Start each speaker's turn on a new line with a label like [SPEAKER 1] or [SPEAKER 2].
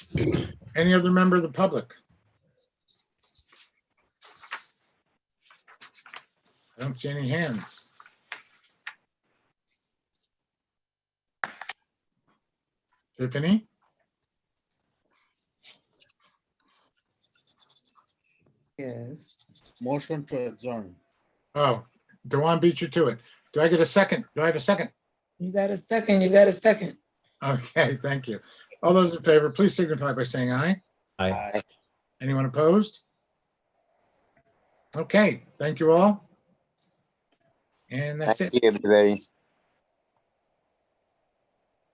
[SPEAKER 1] Any other member of the public? I don't see any hands. Tiffany?
[SPEAKER 2] Yes.
[SPEAKER 3] Motion to adjourn.
[SPEAKER 1] Oh, Dewan beat you to it. Do I get a second? Do I have a second?
[SPEAKER 2] You got a second, you got a second.
[SPEAKER 1] Okay, thank you. All those in favor, please signify by saying aye.
[SPEAKER 4] Aye.
[SPEAKER 3] Aye.
[SPEAKER 1] Anyone opposed? Okay, thank you all. And that's
[SPEAKER 5] Thank
[SPEAKER 1] it.
[SPEAKER 5] you, everybody.